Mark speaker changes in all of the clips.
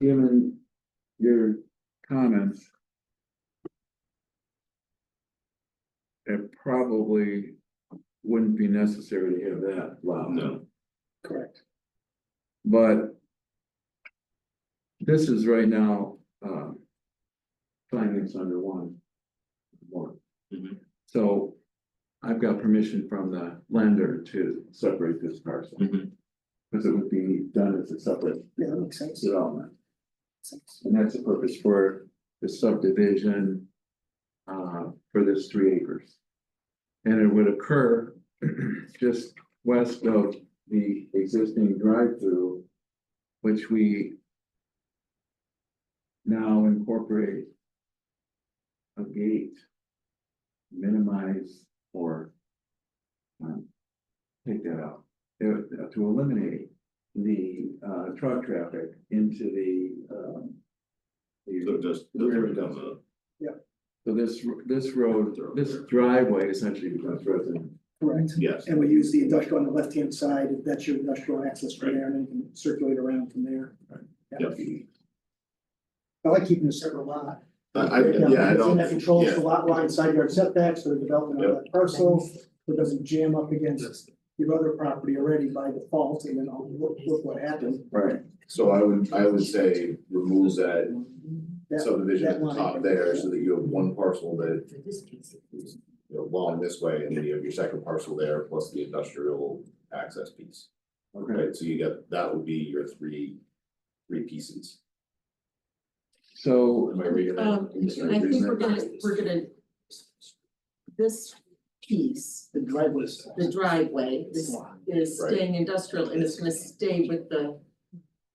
Speaker 1: given your comments. It probably wouldn't be necessary to have that loud.
Speaker 2: No.
Speaker 1: Correct. But. This is right now, uh. Findings under one. One.
Speaker 2: Mhm.
Speaker 1: So. I've got permission from the lender to separate this parcel.
Speaker 2: Mhm.
Speaker 1: Because it would be done as a separate
Speaker 3: Yeah, that makes sense.
Speaker 1: development. And that's the purpose for the subdivision. Uh, for this three acres. And it would occur just west of the existing drive-through. Which we. Now incorporate. A gate. Minimize or. um, Take that out, uh, to eliminate the uh truck traffic into the um.
Speaker 2: So
Speaker 1: the-
Speaker 2: just, that's where it comes up.
Speaker 1: So this, this road, this driveway essentially becomes resident.
Speaker 3: Correct.
Speaker 2: yes,
Speaker 3: And we use the industrial on the left-hand side, if that's your industrial access from there, and then you can circulate around from there.
Speaker 2: yep.
Speaker 3: I like keeping a separate lot.
Speaker 2: I, I, yeah, I
Speaker 3: That
Speaker 2: don't,
Speaker 3: controls
Speaker 2: yeah,
Speaker 3: the lot line, side yard setbacks, or development of that parcel, so it doesn't jam up against your other property already by default, and then oh, look, look what happened.
Speaker 1: Right.
Speaker 4: So I would, I would say remove that
Speaker 3: That-
Speaker 4: subdivision at the
Speaker 3: that line.
Speaker 4: top there, so that you have one parcel that
Speaker 5: For this piece.
Speaker 4: is, you know, long this way, and then you have your second parcel there, plus the industrial access piece.
Speaker 1: Okay,
Speaker 4: Right, so you got, that would be your three, three pieces.
Speaker 1: so
Speaker 4: Am I reading that?
Speaker 5: Um,
Speaker 4: Am
Speaker 5: I think
Speaker 4: reading
Speaker 5: we're
Speaker 4: that
Speaker 5: gonna,
Speaker 4: correctly?
Speaker 5: we're gonna. This piece,
Speaker 3: The driveway is
Speaker 5: the driveway, this is
Speaker 4: Right.
Speaker 5: staying industrial and it's gonna stay with the.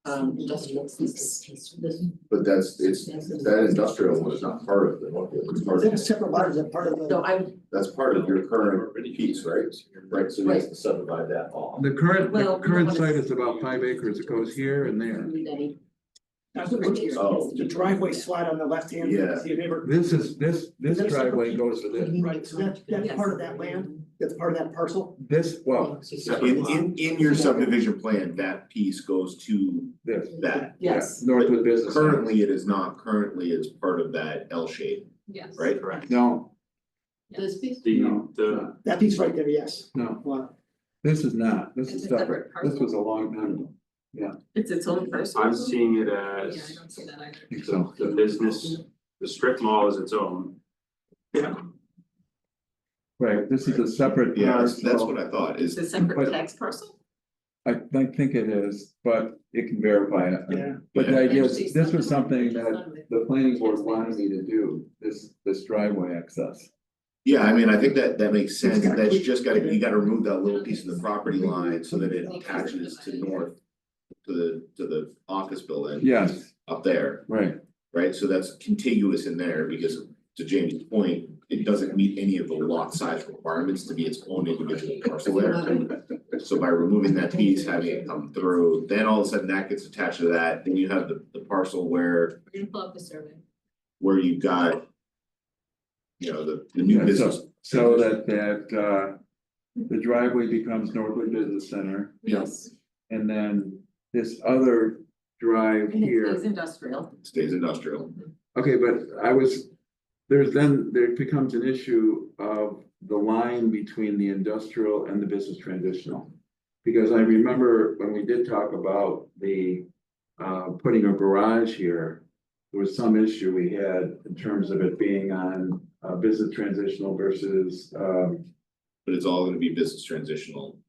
Speaker 5: Um, industrial piece, this,
Speaker 4: But that's, it's, that industrial one is not part of the one, it's
Speaker 3: Is
Speaker 4: part
Speaker 3: that a
Speaker 4: of,
Speaker 3: separate lot, or is that part of
Speaker 5: so
Speaker 3: the,
Speaker 5: I,
Speaker 4: that's part of your current piece, right? Right, so you have to subdivide that off.
Speaker 1: the current, the
Speaker 5: Well, we
Speaker 1: current
Speaker 5: wanna-
Speaker 1: site is about five acres. It goes here and there.
Speaker 5: need any.
Speaker 4: Oh.
Speaker 3: the driveway slide on the left-hand?
Speaker 4: Yeah.
Speaker 3: See, if you ever-
Speaker 1: This is, this, this
Speaker 3: Is that
Speaker 1: driveway
Speaker 3: separate?
Speaker 1: goes to this.
Speaker 3: Right, so that, that's part of that land, that's part of that parcel?
Speaker 1: This, well,
Speaker 4: In, in, in your subdivision plan, that piece goes to
Speaker 1: this,
Speaker 4: that.
Speaker 1: yeah,
Speaker 5: Yes,
Speaker 1: Northwood Business. Center.
Speaker 4: Currently, it is not, currently it's part of that L shape,
Speaker 6: Yes.
Speaker 4: right?
Speaker 1: No,
Speaker 5: this piece,
Speaker 2: The,
Speaker 1: no,
Speaker 2: the,
Speaker 1: no,
Speaker 3: That piece right there, yes.
Speaker 1: no,
Speaker 3: Wow.
Speaker 1: this is not. This is
Speaker 6: It's a separate
Speaker 1: separate. This
Speaker 6: parcel.
Speaker 1: was a long time ago.
Speaker 5: it's its own person.
Speaker 2: I'm seeing it
Speaker 6: Yeah, I
Speaker 2: as
Speaker 6: don't see that either.
Speaker 1: I
Speaker 2: the,
Speaker 1: think So,
Speaker 2: the business, the strip mall is its own.
Speaker 1: right, this is a separate.
Speaker 4: Yes, that's
Speaker 1: parcel.
Speaker 4: what I thought
Speaker 6: It's
Speaker 4: is,
Speaker 6: a
Speaker 1: But-
Speaker 6: separate tax parcel?
Speaker 1: I, I think it is, but it can verify it.
Speaker 3: Yeah.
Speaker 1: But the idea
Speaker 6: Actually,
Speaker 1: is, this was something that
Speaker 6: It's
Speaker 1: the planning board wanted me to do, this, this driveway access.
Speaker 4: yeah, I mean, I think that, that makes sense,
Speaker 3: gotta
Speaker 4: that's
Speaker 3: keep-
Speaker 4: just gotta, you gotta remove that little piece of the property line so that it attaches to north. To the, to the office building
Speaker 1: Yes,
Speaker 4: up there,
Speaker 1: right,
Speaker 4: right, so that's contiguous in there, because to Jamie's point. It doesn't meet any of the lot size requirements to be its own individual parcel there. So by removing that piece, having it come through, then all of a sudden that gets attached to that, then you have the, the parcel where.
Speaker 6: We're gonna pull up the survey.
Speaker 4: where you've got. You know, the, the new
Speaker 1: Yeah, so-
Speaker 4: business,
Speaker 1: so that, that, uh, the driveway becomes Northwood Business Center,
Speaker 4: Yeah.
Speaker 6: Yes.
Speaker 1: and then this other drive
Speaker 6: And it
Speaker 1: here.
Speaker 6: is industrial.
Speaker 4: stays industrial,
Speaker 1: Okay, but I was, there's then, there becomes an issue of the line between the industrial and the business transitional. Because I remember when we did talk about the, uh, putting a garage here. There was some issue we had in terms of it being on, uh, business transitional versus, um,
Speaker 4: but it's all gonna be business transitional.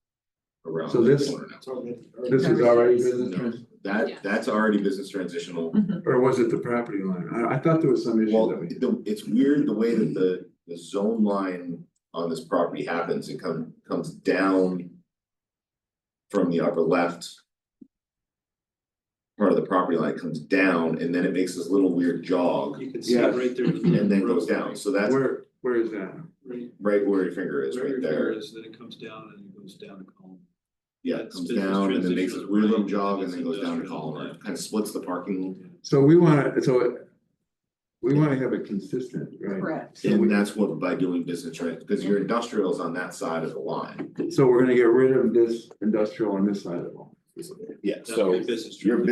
Speaker 4: Around
Speaker 1: So
Speaker 4: the
Speaker 1: this-
Speaker 4: corner now.
Speaker 1: this is already business trans,
Speaker 4: That,
Speaker 6: Yeah.
Speaker 4: that's already business transitional.
Speaker 1: or was it the property line? I, I thought there was some issue
Speaker 4: Well,
Speaker 1: that we,
Speaker 4: the- it's weird the way that the, the zone line on this property happens, it come, comes down. From the upper left. Part of the property line comes down and then it makes this little weird jog
Speaker 7: You can see
Speaker 1: Yes.
Speaker 7: it right there.
Speaker 4: and then goes down, so that's
Speaker 1: where, where is that?
Speaker 7: Right
Speaker 4: right where your finger is,
Speaker 7: where
Speaker 4: right
Speaker 7: your
Speaker 4: there.
Speaker 7: finger is, then it comes down and it goes down a column.
Speaker 4: Yeah, it
Speaker 7: That's
Speaker 4: comes
Speaker 7: business
Speaker 4: down and then makes this
Speaker 7: transition,
Speaker 4: weird little
Speaker 7: right,
Speaker 4: jog and
Speaker 7: and
Speaker 4: then
Speaker 7: it's
Speaker 4: goes down to
Speaker 7: industrial,
Speaker 4: Colorado,
Speaker 7: yeah.
Speaker 4: kind of splits the parking.
Speaker 1: So we wanna, so. We wanna have it consistent, right?
Speaker 6: Correct.
Speaker 1: So we-
Speaker 4: And that's what by doing business trans, because your industrial is on that side of the line.
Speaker 1: So we're gonna get rid of this industrial on this side of all.
Speaker 4: Yeah,
Speaker 7: That's your
Speaker 4: so
Speaker 7: business.
Speaker 4: your
Speaker 7: trip.